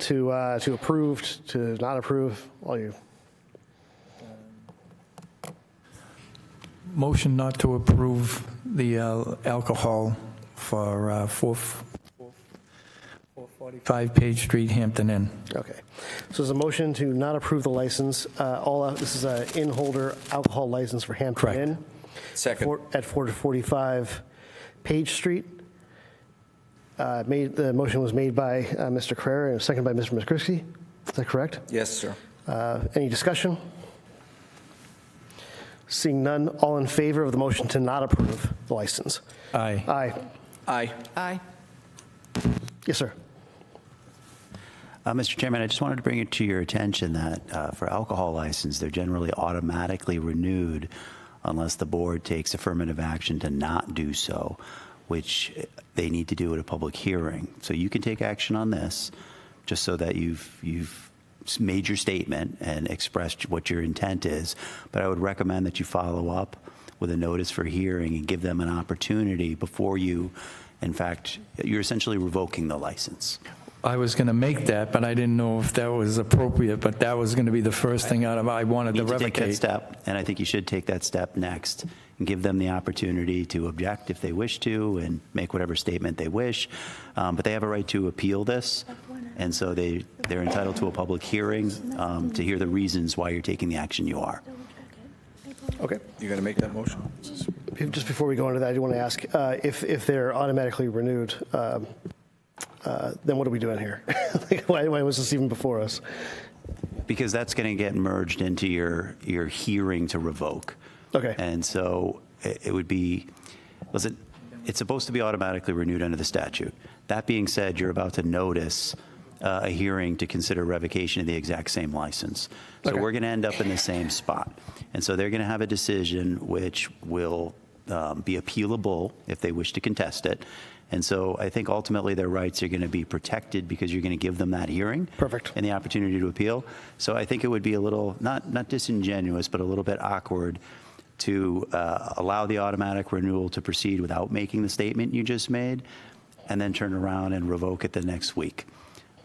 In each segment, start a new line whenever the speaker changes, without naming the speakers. to, uh, to approve, to not approve, all you.
Motion not to approve the uh, alcohol for uh, four- 445 Page Street, Hampton Inn.
Okay. So there's a motion to not approve the license. Uh, All, out- this is a in-holder alcohol license for Hampton
Correct.
Inn.
Second.
Four- At 445 Page Street. Uh, Made, the motion was made by uh, Mr. Carrera and seconded by Mr. McCrisky. Is that correct?
Yes, sir.
Uh, Any discussion? Seeing none, all in favor of the motion to not approve the license?
Aye.
Aye.
Aye.
Aye.
Yes, sir.
Uh, Mr. Chairman, I just wanted to bring it to your attention that uh, for alcohol license, they're generally automatically renewed unless the board takes affirmative action to not do so, which they need to do at a public hearing. So you can take action on this, just so that you've you've made your statement and expressed what your intent is. But I would recommend that you follow up with a notice for hearing and give them an opportunity before you. In fact, you're essentially revoking the license.
I was going to make that, but I didn't know if that was appropriate, but that was going to be the first thing out of, I wanted to
need to take that
revocate.
step, and I think you should take that step next and give them the opportunity to object if they wish to and make whatever statement they wish. Um, but they have a right to appeal this, and so they, they're entitled to a public hearing um, to hear the reasons why you're taking the action you are.
Okay.
You gonna make that motion?
Just before we go into that, I do want to ask, uh, if, if they're automatically renewed, um, uh, then what are we doing here? Like, Why why was this even before us?
Because that's going to get merged into your, your hearing to revoke.
Okay.
And so it it would be, listen, it's supposed to be automatically renewed under the statute. That being said, you're about to notice uh, a hearing to consider revocation of the exact same license. So
Okay.
we're going to end up in the same spot. And so they're going to have a decision which will um, be appealable if they wish to contest it. And so I think ultimately their rights are going to be protected because you're going to give them that hearing
Perfect.
and the opportunity to appeal. So I think it would be a little, not, not disingenuous, but a little bit awkward to uh, allow the automatic renewal to proceed without making the statement you just made, and then turn around and revoke it the next week,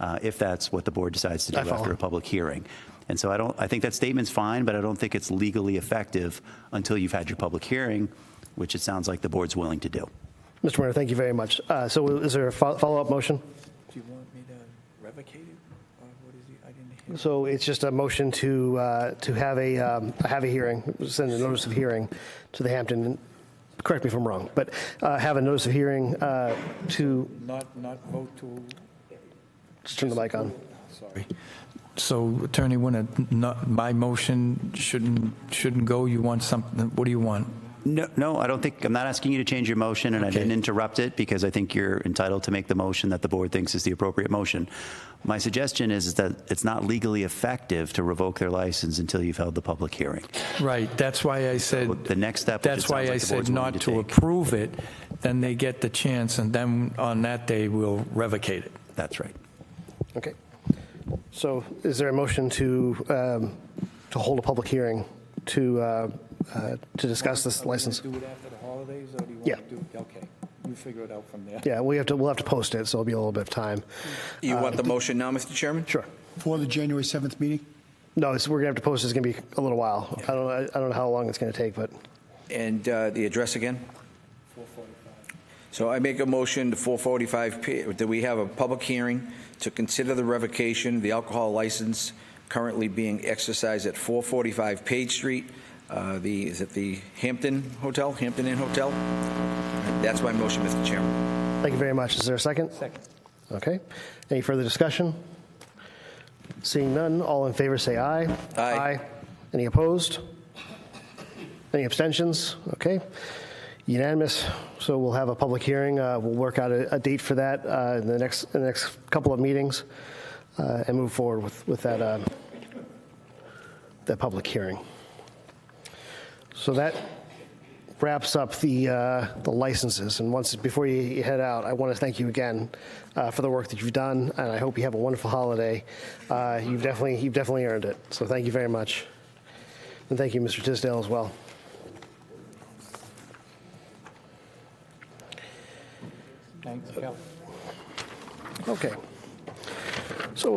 uh, if that's what the board decides to do
I follow.
after a public hearing. And so I don't, I think that statement's fine, but I don't think it's legally effective until you've had your public hearing, which it sounds like the board's willing to do.
Mr. Mayor, thank you very much. Uh, So is there a fo- follow-up motion?
Do you want me to revocate it? what is I didn't hear.
So it's just a motion to, uh, to have a, um, have a hearing, send a notice of hearing to the Hampton, correct me if I'm wrong, but uh, have a notice of hearing uh, to,
Not, not vote to.
just turn the mic on.
So Attorney Winter, not, my motion shouldn't, shouldn't go, you want something, what do you want?
No, no, I don't think, I'm not asking you to change your motion, and I
Okay.
didn't interrupt it because I think you're entitled to make the motion that the board thinks is the appropriate motion. My suggestion is is that it's not legally effective to revoke their license until you've held the public hearing.
Right, that's why I said.
The next step, which it
That's why
sounds
I
like the board's
said not
willing to
to
take.
approve it, then they get the chance, and then on that day, we'll revocate it.
That's right.
Okay. So is there a motion to, um, to hold a public hearing to, uh, uh, to discuss this license?
Do it after the holidays, or do you want
Yeah.
to do? Okay, you figure it out from there.
Yeah, we have to, we'll have to post it, so it'll be a little bit of time.
You want the motion now, Mr. Chairman?
Sure.
For the January 7th meeting?
No, it's, we're gonna have to post, it. it's gonna be a little while. I don't, I don't know how long it's gonna take, but
And uh, the address again? 445. So I make a motion to 445, P- that we have a public hearing to consider the revocation of the alcohol license currently being exercised at 445 Page Street, uh, the, is it the Hampton Hotel, Hampton Inn Hotel? That's my motion, Mr. Chairman.
Thank you very much. Is there a second? Second. Okay. Any further discussion? Seeing none, all in favor say aye.
Aye.
Any opposed? Any abstentions? Okay. Unanimous. So we'll have a public hearing. Uh, We'll work out a, a date for that uh, in the next, in the next couple of meetings uh, and move forward with, with that, um, that public hearing. So that wraps up the, uh, the licenses. And once, before you you head out, I want to thank you again uh, for the work that you've done, and I hope you have a wonderful holiday. Uh, You've definitely, you've definitely earned it, so thank you very much. And thank you, Mr. Tisdale, as well.
Thanks, Kelly.
Okay.